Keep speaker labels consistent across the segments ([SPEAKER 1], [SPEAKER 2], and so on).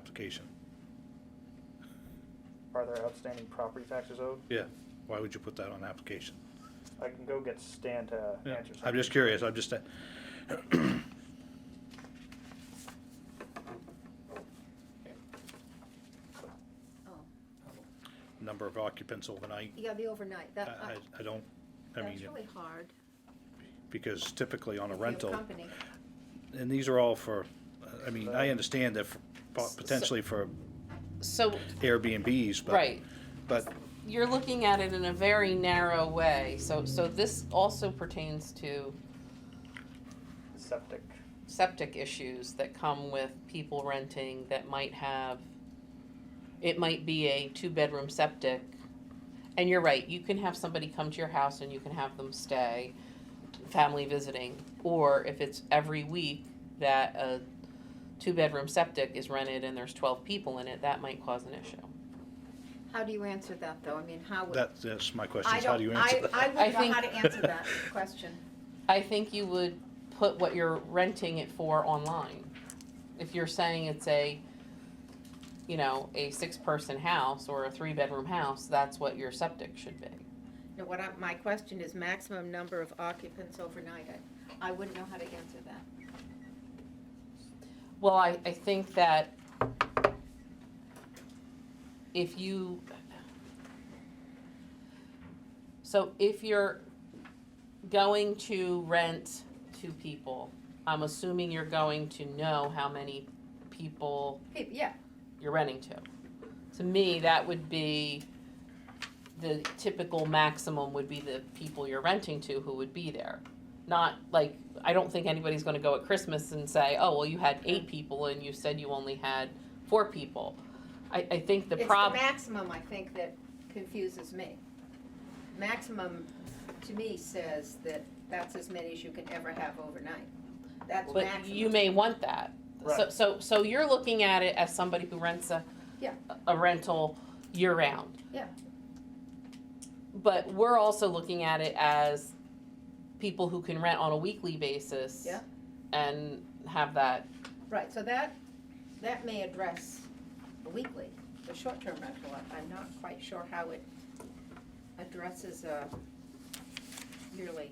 [SPEAKER 1] application.
[SPEAKER 2] Are there outstanding property taxes owed?
[SPEAKER 1] Yeah, why would you put that on application?
[SPEAKER 2] I can go get Stan to
[SPEAKER 1] Yeah,
[SPEAKER 2] answer something.
[SPEAKER 1] I'm just curious, I'm just, uh,
[SPEAKER 3] Oh,
[SPEAKER 1] number of occupants overnight,
[SPEAKER 3] yeah, the overnight,
[SPEAKER 1] I,
[SPEAKER 3] that,
[SPEAKER 1] I,
[SPEAKER 3] uh,
[SPEAKER 1] I don't, I
[SPEAKER 3] that's
[SPEAKER 1] mean,
[SPEAKER 3] really hard.
[SPEAKER 1] because typically on a
[SPEAKER 3] if you have
[SPEAKER 1] rental,
[SPEAKER 3] company.
[SPEAKER 1] and these are all for, I mean, I understand that for-
[SPEAKER 4] S- so-
[SPEAKER 1] potentially for
[SPEAKER 4] So,
[SPEAKER 1] Airbnbs, but.
[SPEAKER 4] right,
[SPEAKER 1] But,
[SPEAKER 4] you're looking at it in a very narrow way, so, so this also pertains to
[SPEAKER 2] Septic.
[SPEAKER 4] septic issues that come with people renting that might have, it might be a two-bedroom septic. And you're right, you can have somebody come to your house and you can have them stay, family visiting. Or if it's every week that a two-bedroom septic is rented and there's twelve people in it, that might cause an issue.
[SPEAKER 3] How do you answer that, though? I mean, how would?
[SPEAKER 1] that, that's my question,
[SPEAKER 3] I
[SPEAKER 1] is how do
[SPEAKER 3] don't-
[SPEAKER 1] you answer
[SPEAKER 3] I, I
[SPEAKER 1] that?
[SPEAKER 3] wouldn't
[SPEAKER 4] I
[SPEAKER 3] know how to
[SPEAKER 1] think-
[SPEAKER 3] answer that question.
[SPEAKER 4] I think you would put what you're renting it for online. If you're saying it's a, you know, a six-person house or a three-bedroom house, that's what your septic should be.
[SPEAKER 3] No, what I, my question is maximum number of occupants overnight. I, I wouldn't know how to answer that.
[SPEAKER 4] Well, I, I think that if you, so if you're going to rent to people, I'm assuming you're going to know how many people
[SPEAKER 3] Hey, yeah,
[SPEAKER 4] you're renting to. To me, that would be, the typical maximum would be the people you're renting to who would be there. Not like, I don't think anybody's gonna go at Christmas and say, oh, well, you had eight people and you said you only had four people. I, I think the
[SPEAKER 3] it's the
[SPEAKER 4] problem.
[SPEAKER 3] maximum, I think, that confuses me. Maximum, to me, says that that's as many as you can ever have overnight. That's
[SPEAKER 4] But you
[SPEAKER 3] maximum.
[SPEAKER 4] may want that. So,
[SPEAKER 2] Right.
[SPEAKER 4] so, so you're looking at it as somebody who rents a.
[SPEAKER 3] Yeah.
[SPEAKER 4] A rental year-round.
[SPEAKER 3] Yeah.
[SPEAKER 4] But we're also looking at it as people who can rent on a weekly basis.
[SPEAKER 3] Yeah.
[SPEAKER 4] And have that,
[SPEAKER 3] Right, so that, that may address the weekly, the short-term rental. I- I'm not quite sure how it addresses a yearly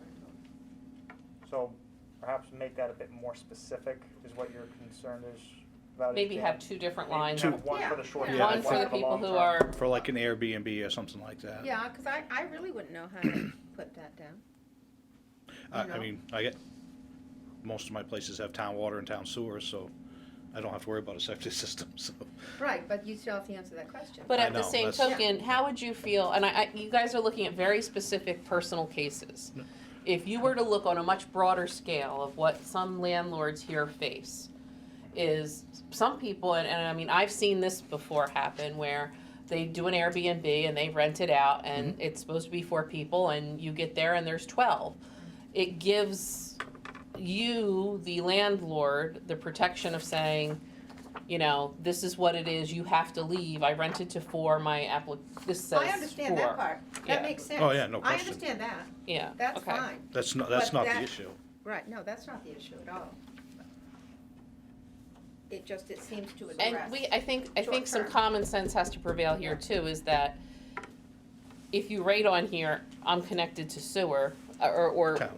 [SPEAKER 3] rental.
[SPEAKER 2] So perhaps make that a bit more specific is what your concern is about. it,
[SPEAKER 4] maybe
[SPEAKER 2] Dan.
[SPEAKER 4] have two different
[SPEAKER 2] I mean,
[SPEAKER 4] lines.
[SPEAKER 2] kind of One
[SPEAKER 3] Yeah,
[SPEAKER 2] for the short
[SPEAKER 1] yeah.
[SPEAKER 2] term.
[SPEAKER 1] Yeah, I
[SPEAKER 4] One for the
[SPEAKER 2] for the
[SPEAKER 4] people
[SPEAKER 2] long
[SPEAKER 4] who
[SPEAKER 2] term.
[SPEAKER 4] are,
[SPEAKER 1] For like an Airbnb or something like that.
[SPEAKER 4] Uh,
[SPEAKER 3] Yeah, because I, I really wouldn't know how to put that down.
[SPEAKER 1] I,
[SPEAKER 3] you
[SPEAKER 1] I
[SPEAKER 3] know?
[SPEAKER 1] mean, I get, most of my places have town water and town sewers, so I don't have to worry about a septic system, so.
[SPEAKER 3] Right, but you still have to answer that question.
[SPEAKER 4] but
[SPEAKER 1] I
[SPEAKER 4] at the
[SPEAKER 1] know,
[SPEAKER 4] same
[SPEAKER 1] that's-
[SPEAKER 4] token, how would you feel, and I, I, you guys are looking at very specific personal cases. If you were to look on a much broader scale of what some landlords here face, is some people, and, and I mean, I've seen this before happen where they do an Airbnb and they rent it out and
[SPEAKER 1] Mm-hmm.
[SPEAKER 4] it's supposed to be four people and you get there and there's 12. It gives you, the landlord, the protection of saying, you know, this is what it is, you have to leave. I rented to four, my applic, this says four.
[SPEAKER 3] I understand that part. That
[SPEAKER 4] Yeah.
[SPEAKER 3] makes sense.
[SPEAKER 1] Oh, yeah, no
[SPEAKER 3] I
[SPEAKER 1] question.
[SPEAKER 3] understand that.
[SPEAKER 4] Yeah,
[SPEAKER 3] That's
[SPEAKER 4] okay.
[SPEAKER 3] fine.
[SPEAKER 1] That's not, that's
[SPEAKER 3] But
[SPEAKER 1] not the
[SPEAKER 3] that-
[SPEAKER 1] issue.
[SPEAKER 3] Right, no, that's not the issue at all. It just, it seems to address.
[SPEAKER 4] And we, I think, I think some
[SPEAKER 3] Short-term.
[SPEAKER 4] common sense has to prevail here too, is that if you rate on here, I'm connected to sewer, uh, or, or
[SPEAKER 1] Town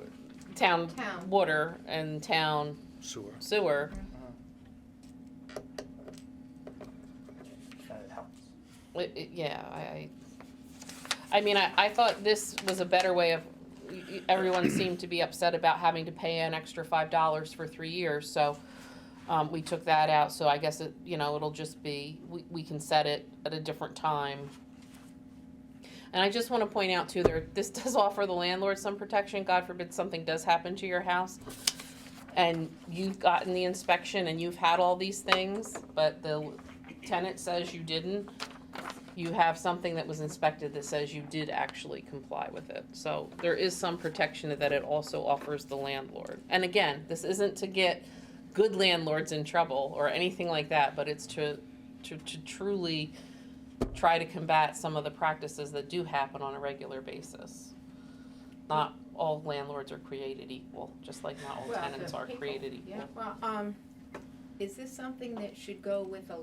[SPEAKER 4] town
[SPEAKER 3] Town.
[SPEAKER 4] water and town
[SPEAKER 1] sewer.
[SPEAKER 4] sewer,
[SPEAKER 2] And it helps.
[SPEAKER 4] it- it- yeah, I, I, I mean, I, I thought this was a better way of, y- y- everyone seemed to be upset about having to pay an extra five dollars for three years, so, um, we took that out, so I guess it, you know, it'll just be, we, we can set it at a different time. And I just wanna point out too, there, this does offer the landlord some protection, God forbid something does happen to your house. And you've gotten the inspection and you've had all these things, but the tenant says you didn't. You have something that was inspected that says you did actually comply with it, so there is some protection that it also offers the landlord. And again, this isn't to get good landlords in trouble or anything like that, but it's to, to, to truly try to combat some of the practices that do happen on a regular basis. Not all landlords are created equal, just like not all
[SPEAKER 3] Well,
[SPEAKER 4] tenants
[SPEAKER 3] the
[SPEAKER 4] are
[SPEAKER 3] people,
[SPEAKER 4] created equal.
[SPEAKER 3] Yeah, well, um, is this something that should go with a